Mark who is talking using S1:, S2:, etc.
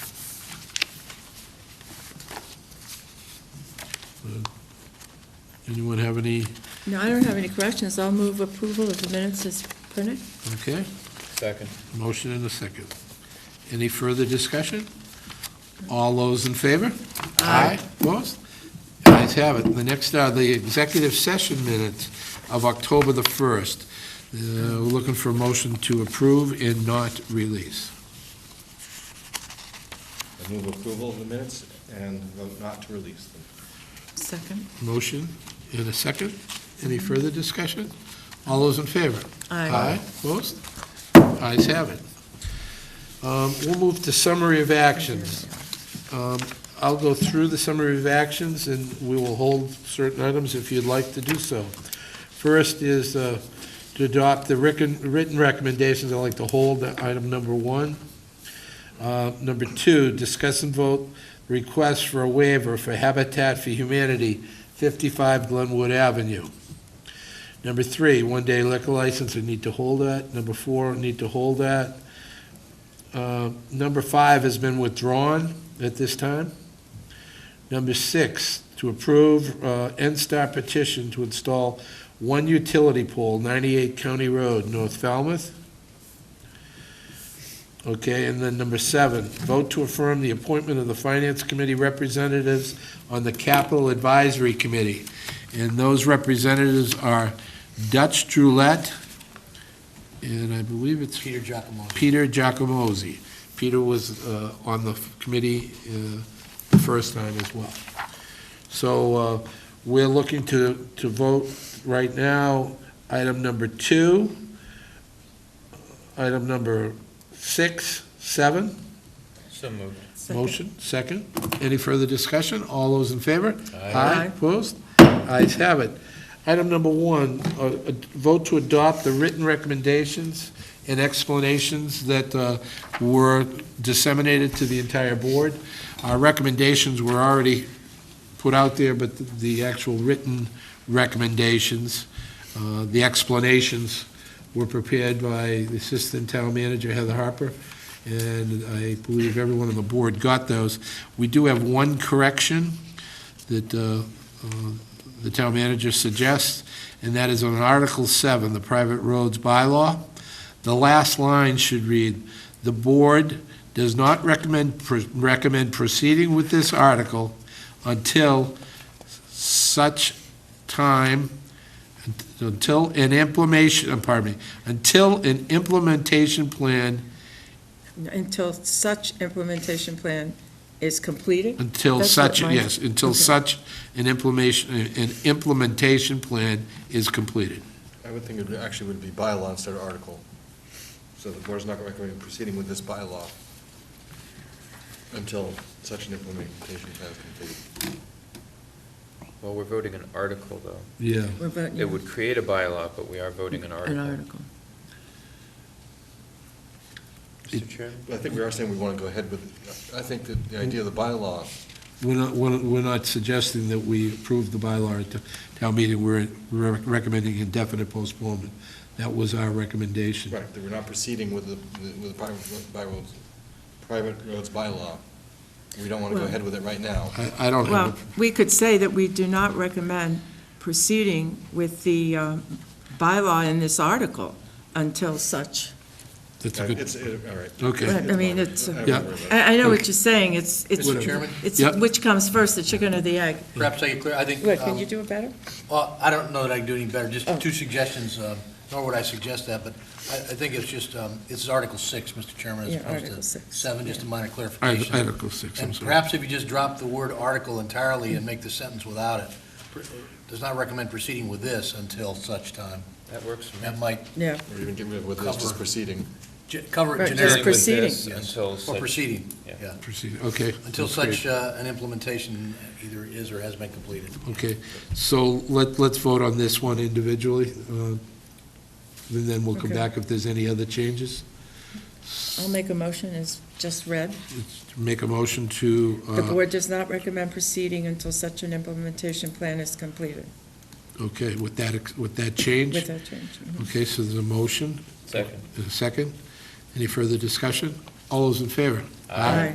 S1: Anyone have any,
S2: No, I don't have any corrections. I'll move approval of the minutes as printed.
S1: okay?
S3: Second.
S1: Motion and a second. Any further discussion? All those in favor? Aye. Opposed? Ayes have it. The next are the executive session minutes of October the 1st. Uh, We're looking for a motion to approve and not release.
S3: I move approval of the minutes and vote not to release them.
S2: Second.
S1: Motion and a second. Any further discussion? All those in favor?
S2: Aye.
S1: Opposed? Ayes have it. Um, We'll move to summary of actions. Um, I'll go through the summary of actions, and we will hold certain items if you'd like to do so. First is uh, to adopt the recon- written recommendations. I'd like to hold item number one. Uh, Number two, discuss and vote request for a waiver for Habitat for Humanity, 55 Glenwood Avenue. Number three, one-day liquor license, we need to hold that. Number four, need to hold that. Uh, Number five has been withdrawn at this time. Number six, to approve uh, NSTAR petition to install one utility pole, 98 County Road, North Falmouth. Okay, and then number seven, vote to affirm the appointment of the Finance Committee representatives on the Capital Advisory Committee. And those representatives are Dutch Droulette, and I believe it's
S4: Peter Giacomosi.
S1: Peter Giacomozzi. Peter was uh, on the committee uh, the first time as well. So uh, we're looking to, to vote right now, item number two, uh, item number six, seven,
S3: So moved.
S2: Second.
S1: motion, second. Any further discussion? All those in favor?
S2: Aye.
S1: Opposed? Ayes have it. Item number one, uh, uh, vote to adopt the written recommendations and explanations that uh, were disseminated to the entire board. Our recommendations were already put out there, but the actual written recommendations, uh, the explanations were prepared by the Assistant Town Manager Heather Harper, and I believe everyone on the board got those. We do have one correction that uh, uh, the town manager suggests, and that is on Article 7, the private roads bylaw. The last line should read, "The board does not recommend, recommend proceeding with this article until such time, until an implementation, uh, pardon me, until an implementation plan,
S2: Until such implementation plan is completed?
S1: until
S2: That's what
S1: such,
S2: mine-
S1: yes, until
S2: okay.
S1: such an implementation, an implementation plan is completed."
S3: I would think it would- actually would be bylaw instead of article. So the board's not recommending proceeding with this bylaw until such an implementation plan is completed.
S5: Well, we're voting an article, though.
S1: Yeah.
S2: We're voting
S5: It would create a bylaw, but we are voting an
S2: An
S5: article.
S2: article.
S5: Mr. Chairman?
S3: But I think we are saying we want to go ahead with, I think that the idea of the bylaw,
S1: We're not, we're we're not suggesting that we approve the bylaw at t- town meeting, we're we're recommending indefinite postponement. That was our recommendation.
S3: right, that we're not proceeding with the, with the private bylaws, private roads bylaw. We don't want to go
S2: Well-
S3: ahead with it right now.
S1: I I don't
S2: Well,
S1: have,
S2: we could say that we do not recommend proceeding with the um, bylaw in this article until such.
S1: a- that's a good,
S3: It's, it- all right.
S1: okay.
S2: I mean, it's,
S3: I
S2: uh,
S3: won't
S1: Yeah.
S3: worry about it.
S2: I, I know what you're saying, it's, it's.
S4: Mr. Chairman?
S2: It's
S1: Yep.
S2: which comes first, the chicken or the egg.
S4: Perhaps I get clear, I think,
S2: What, can you
S4: um,
S2: do it better?
S4: well, I don't know that I can do any better, just
S2: Oh.
S4: two suggestions, um, nor would I suggest that, but I, I think it's just, um, it's Article 6, Mr. Chairman, as
S2: Yeah,
S4: opposed
S2: Article
S4: to
S2: six,
S4: 7, just a minor
S1: I-
S4: clarification.
S1: Article 6, I'm
S4: And
S1: sorry.
S4: perhaps if you just drop the word article entirely and make the sentence without it, Pr- does not recommend proceeding with this until such time.
S5: That works for me.
S4: That might
S2: Yeah,
S3: Or even get rid of what this, just
S4: Cover.
S3: proceeding.
S4: ge- cover
S2: Right,
S4: it
S2: just
S4: generically.
S2: proceeding.
S5: With this
S4: Yes.
S5: Until
S4: Or
S5: such,
S4: proceeding,
S5: Yeah.
S4: yeah,
S1: Proceed, okay,
S4: until
S5: That's great.
S4: such uh, an implementation either is or has been completed.
S1: okay. So let, let's vote on this one individually, uh, and then we'll come
S2: Okay.
S1: back if there's any other changes.
S2: I'll make a motion, it's just read.
S1: Make a motion to,
S2: The
S1: uh,
S2: board does not recommend proceeding until such an implementation plan is completed,
S1: okay, with that, ex- with that change.
S2: with that change.
S1: Okay, so there's a motion.
S5: second.
S1: Is there a second? Any further discussion? All those in favor?
S2: Aye.